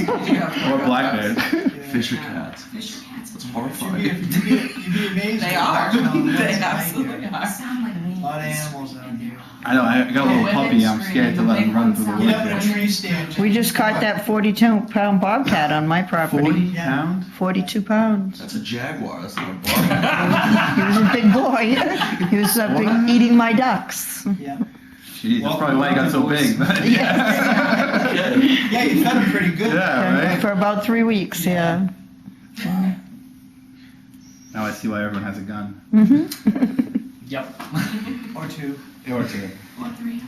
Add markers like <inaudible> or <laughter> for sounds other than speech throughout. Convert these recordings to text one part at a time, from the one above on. Or black man. Fisher cats. Fisher cats. That's You'd be, horrifying. you'd be, you'd be amazed. They at <laughs> are. the amount of animals out here. They absolutely A are. Sound like me. lot of animals out here. I know. I got a little Women puppy. I'm scream, scared to let him run through the they Get woods. up in a tree stand. We just caught that 42 pound bobcat on my property. Forty pound. 42 pounds. That's a jaguar. That's not a <laughs> bar. He was a big boy. <laughs> He was up What? eating my ducks. Yeah. Jeez, that's probably why he got so big. But yeah. Okay. Yeah, you fed them pretty good. yeah, right. For about three weeks, yeah. Now I see why everyone has a gun. <laughs> hmm Yep. Or two. Or two. One, three.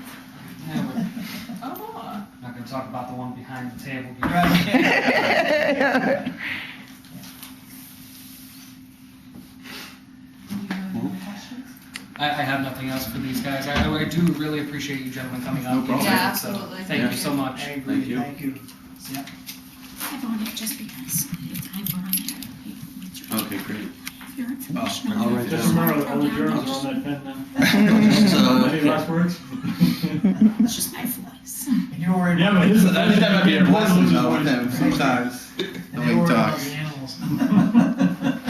Yeah, we're Oh, not gonna talk about the one behind the table. <laughs> Right. you have any questions? I, I have nothing else for these guys. I, I do really appreciate you gentlemen coming up. No problem. Yeah, Okay, absolutely. Thank you so I much. agree. Thank you. Thank you. I voted just because I vote on that. It's your- Okay, great. Your Oh, information. I'll write Just down. tomorrow, all the journals are on that pen now. Just, uh, Any last words? It's just my voice. And you're worried Yeah, about, but and this is. I think that might be unpleasant though with them him sometimes. The way you're he worried about talks. the animals. <laughs>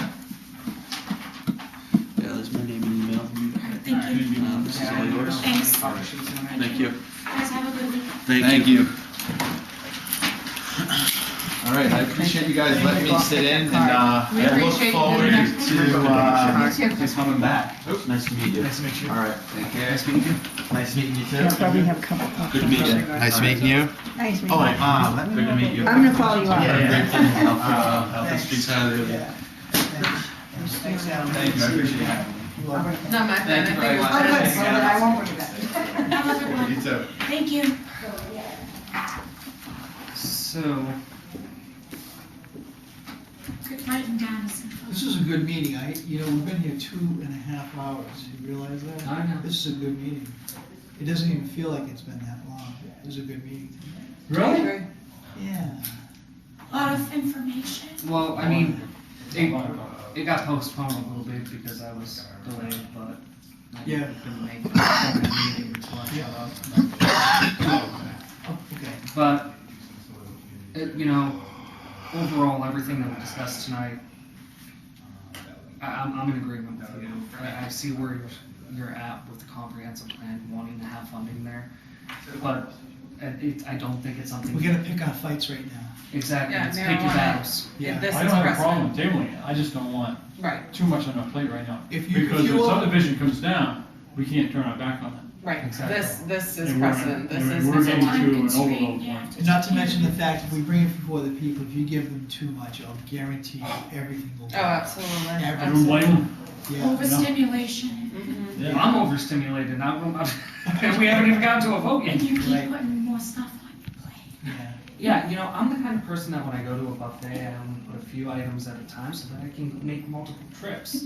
Yeah, there's my name and email. Thank you. Uh, this is all yours. Thanks. Thank you. Guys, have a good weekend. Thank you. All right, I appreciate you guys letting me sit in, and uh, We I look appreciate you. forward to uh, Thank you. coming back. Oops, nice to meet you. Nice to meet you. All right. Take care. Nice meeting you. Nice meeting you I'll too. probably have a couple. Good to meet you. Nice meeting you. Nice meeting Oh, you. uh, let me. Good to meet you. I'm gonna follow you Yeah, up. yeah. yeah. Uh, help us speak highly. Yeah. Thanks. Thanks, Adam. Thank you. I appreciate you having me. You're welcome. Not my friend. Thank you I very think it much. was- I won't bring Have a good one. You too. Thank you. So, Good night, guys. This is a good meeting. I, you know, we've been here two and a half hours. You realize that? I know. This is a good meeting. It doesn't even feel like it's been that long. It was a good meeting. really? Yeah. A lot of information. Well, I mean, it, it got postponed a little bit because I was delayed, but I Yeah. couldn't make it. So many meetings, so I shut up. Oh, okay. But, it, you know, overall, everything that we discussed tonight, I, I'm, I'm in agreement with you. I, I see where you're, you're at with the comprehensive plan, wanting to have funding there. But it, it, I don't think it's something. We gotta pick our fights right now. Exactly, Yeah, it's pick your marijuana. battles. Yeah. This I is don't have a problem precedent. with tabling it, I just don't want Right, too much on our plate right now. If you- if Because you if will- subdivision comes down, we can't turn our back on it. right. Exactly. This, this is And we're- precedent. This and is. we're this is getting one. to an Constrained, overload yeah, point. just Not to keep mention it. the fact, if we bring it before the people, if you give them too much, I'll guarantee you everything will. Oh, absolutely. Everyone I don't absolutely. blame them. Yeah. Overstimulation. Mhm. Yeah. I'm overstimulated, I won't, <laughs> and we haven't even gotten to a vote yet. And you keep Right. putting more stuff on your plate. Yeah. Yeah, you know, I'm the kind of person that when I go to a buffet, I only put a few items at a time so that I can make multiple trips.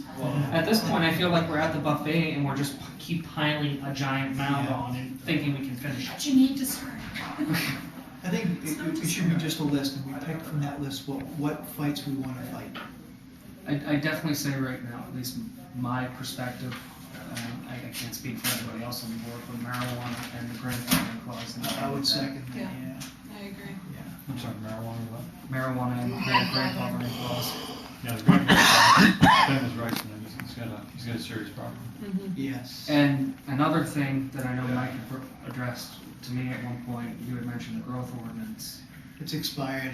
At this point, I feel like we're at the buffet and we're just p- keep piling a giant mound Yeah. on and thinking we can finish it. But you need to start. I think it, it- it should be just a list, and we pick from that list what, what fights we wanna fight. <laughs> I, I definitely say right now, at least my perspective, uh, I, I can't speak for everybody else on the board, but marijuana and the grandfathering clause. and I would second that, Yeah. yeah. Mm-hmm. I agree. I'm sorry, marijuana, what? Marijuana and the grand- grandfathering clause. Yeah, the grand, Ben is right, and he's- he's got a, he's got a serious problem. Mm-hmm. Yes. And another thing that I know Mike had br- addressed to me at one point, you had mentioned the growth ordinance. It's expired,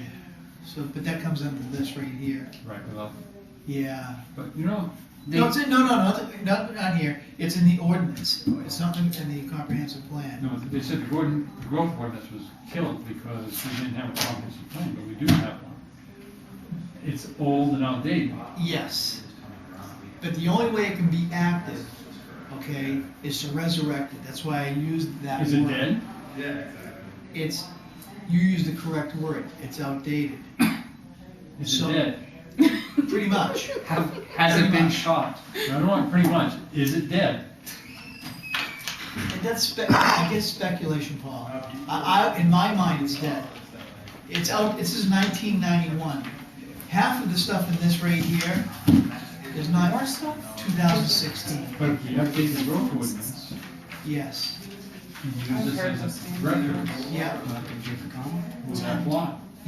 so, but that comes under this right here, Right, we love him. yeah. But, you know, They- No, it's in, no, no, not, not on here, it's in the ordinance, it's not in in the comprehensive plan. no, they said the Gordon, the growth ordinance was killed because we didn't have a comprehensive plan, but we do have one. It's old and outdated. Yes. But the only way it can be active, okay, is to resurrect it, that's why I used that word. Is it dead? It's, you used the correct word, it's outdated, Is So- it dead? pretty much. Have, has it <laughs> been shot? No, no, pretty much. Is it dead? And that's spe- I guess speculation, Paul. I, I, in my mind, it's dead. It's out. This is 1991. Half of the stuff in this right here is not 2016. But if you update the growth ordinance, Yes. and you use this as a record, Yeah. will that apply?